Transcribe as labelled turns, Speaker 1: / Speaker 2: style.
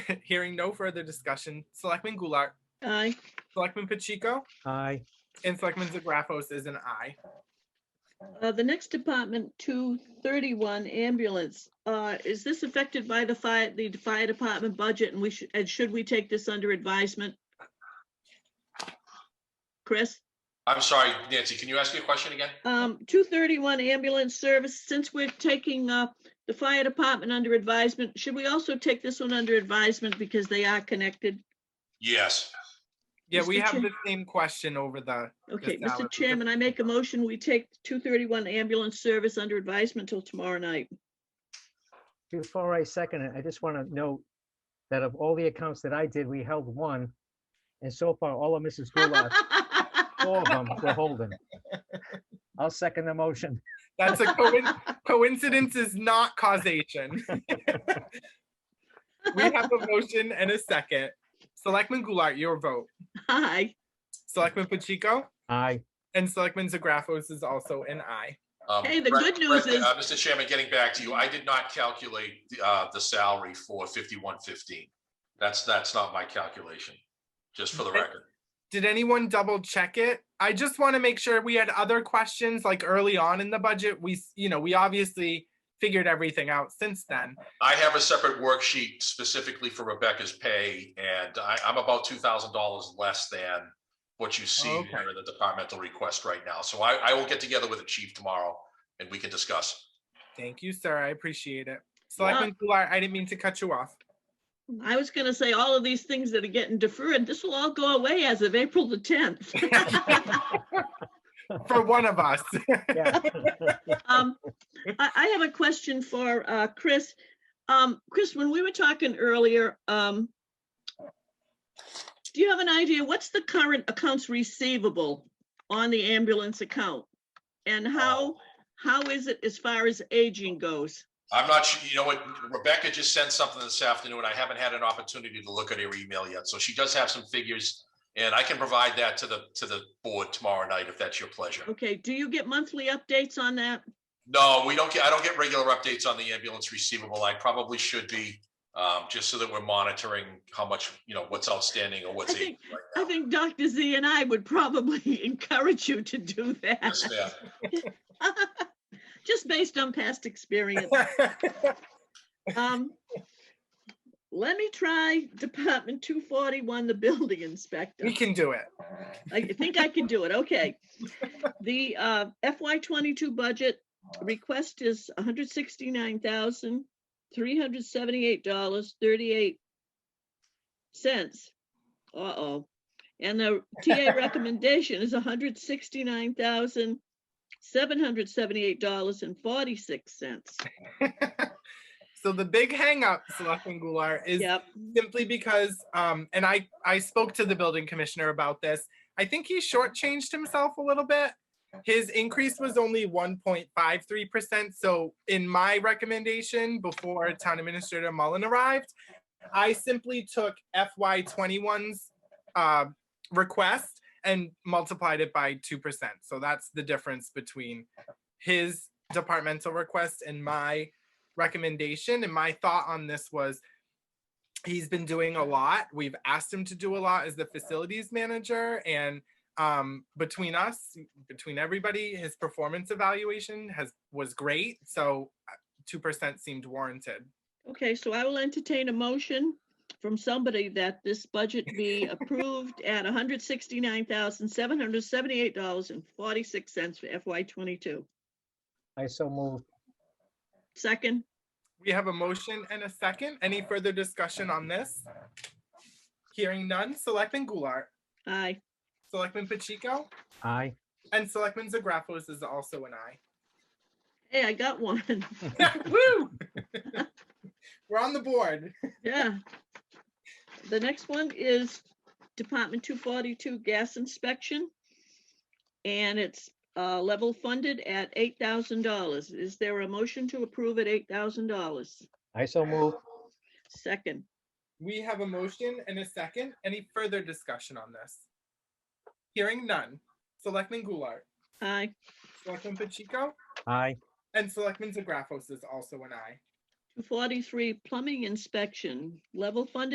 Speaker 1: Hearing no further discussion, Selectman Goulart,
Speaker 2: Aye.
Speaker 1: Selectman Pacheco,
Speaker 3: Aye.
Speaker 1: and Selectman Zagrafos is an aye.
Speaker 2: Uh, The next department, 231 ambulance. Uh, Is this affected by the fire, the fire department budget? And we should, and should we take this under advisement? Chris?
Speaker 4: I'm sorry, Nancy, can you ask me a question again?
Speaker 2: Um, two thirty-one ambulance service, since we're taking, uh, the fire department under advisement, should we also take this one under advisement because they are connected?
Speaker 4: Yes.
Speaker 1: Yeah, we
Speaker 2: Mr.
Speaker 1: have
Speaker 2: Chair-
Speaker 1: the same question over the,
Speaker 2: Okay,
Speaker 1: Yes, Alan.
Speaker 2: Mr. Chairman, I make a motion, we take two thirty-one ambulance service under advisement till tomorrow night.
Speaker 3: Before I second it, I just want to note that of all the accounts that I did, we held one. And so far, all of Mrs. Goulart's, four of them were holding. I'll second the motion.
Speaker 1: that's a coin- coincidence is not causation. We have a motion and a second. Selectman Goulart, your vote.
Speaker 2: Aye,
Speaker 1: Selectman Pacheco
Speaker 3: Aye.
Speaker 1: and Selectman Zagrafos is also an aye.
Speaker 4: Um,
Speaker 2: Hey, the
Speaker 4: Brett-
Speaker 2: good news
Speaker 4: Brett,
Speaker 2: is-
Speaker 4: uh, Mr. Chairman, getting back to you, I did not calculate the, uh, the salary for fifty-one fifteen. That's, that's not my calculation, just for the
Speaker 1: Okay.
Speaker 4: record.
Speaker 1: Did anyone double check it? I just want to make sure we had other questions like early on in the budget. We, s- you know, we obviously figured everything out since then.
Speaker 4: I have a separate worksheet specifically for Rebecca's pay, and I, I'm about two thousand dollars less than what you
Speaker 2: Oh,
Speaker 4: see
Speaker 1: Okay.
Speaker 4: here in the departmental request right now. So I, I will get together with the chief tomorrow and we can discuss.
Speaker 1: Thank you, sir. I appreciate it. Selectman Goulart, I didn't mean to cut you off.
Speaker 2: I was gonna say, all of these things that are getting deferred, this will all go away as of April the tenth.
Speaker 1: For one of us.
Speaker 3: Yeah.
Speaker 2: Um, I, I have a question for, uh, Chris. Um, Chris, when we were talking earlier, um, do you have an idea, what's the current accounts receivable on the ambulance account? And how, how is it as far as aging goes?
Speaker 4: I'm not sure, you know what, Rebecca just sent something this afternoon. I haven't had an opportunity to look at her email yet, so she does have some figures. And I can provide that to the, to the board tomorrow night if that's your pleasure.
Speaker 2: Okay, do you get monthly updates on that?
Speaker 4: No, we don't get, I don't get regular updates on the ambulance receivable. I probably should be, um, just so that we're monitoring how much, you know, what's outstanding or what's.
Speaker 2: I think-
Speaker 4: aging right
Speaker 2: I
Speaker 4: now.
Speaker 2: think Dr. Z and I would probably encourage you to do
Speaker 4: Yes,
Speaker 2: that,
Speaker 4: ma'am.
Speaker 2: just based on past experience. Um, let me try Department two forty-one, the building inspector.
Speaker 1: We can do it.
Speaker 2: I think I can do it, okay. The uh, FY twenty-two budget request is hundred sixty-nine thousand, three hundred seventy-eight dollars, thirty-eight cents. Uh-oh. And the TA recommendation is hundred sixty-nine thousand, seven hundred seventy-eight dollars and forty-six cents.
Speaker 1: So the big hang up, Selectman Goulart, is
Speaker 2: Yep.
Speaker 1: simply because, um, and I, I spoke to the building commissioner about this. I think he shortchanged himself a little bit. His increase was only one point five three percent, so in my recommendation, before Town Administrator Mullen arrived, I simply took FY 21's uh, request and multiplied it by two percent. So that's the difference between his departmental request and my recommendation. And my thought on this was he's been doing a lot. We've asked him to do a lot as the facilities manager and um between us between everybody his performance evaluation has was great so uh, 2% seemed warranted
Speaker 2: Okay, so I will entertain a motion from somebody that this budget be approved at hundred sixty-nine thousand, seven hundred seventy-eight dollars and forty-six cents for FY twenty-two.
Speaker 3: I so moved.
Speaker 2: Second,
Speaker 1: we have a motion and a second any further discussion on this hearing none selectman goulart
Speaker 2: aye.
Speaker 1: selectman pacheco
Speaker 3: Aye.
Speaker 1: and selectman zagrafos is also an aye
Speaker 2: Hey, I got one.
Speaker 1: Woo! we're on the board
Speaker 2: Yeah. The next one is Department two forty-two gas inspection. And it's uh level funded at eight thousand dollars. Is there a motion to approve at eight thousand dollars?
Speaker 3: I so moved.
Speaker 2: Second,
Speaker 1: We have a motion and a second. Any further discussion on this? Hearing none. Selectman Goulart,
Speaker 2: aye.
Speaker 1: Selectman Pacheco,
Speaker 3: Aye.
Speaker 1: and Selectman Zagrafos is also an aye.
Speaker 2: 243 plumbing inspection, level funded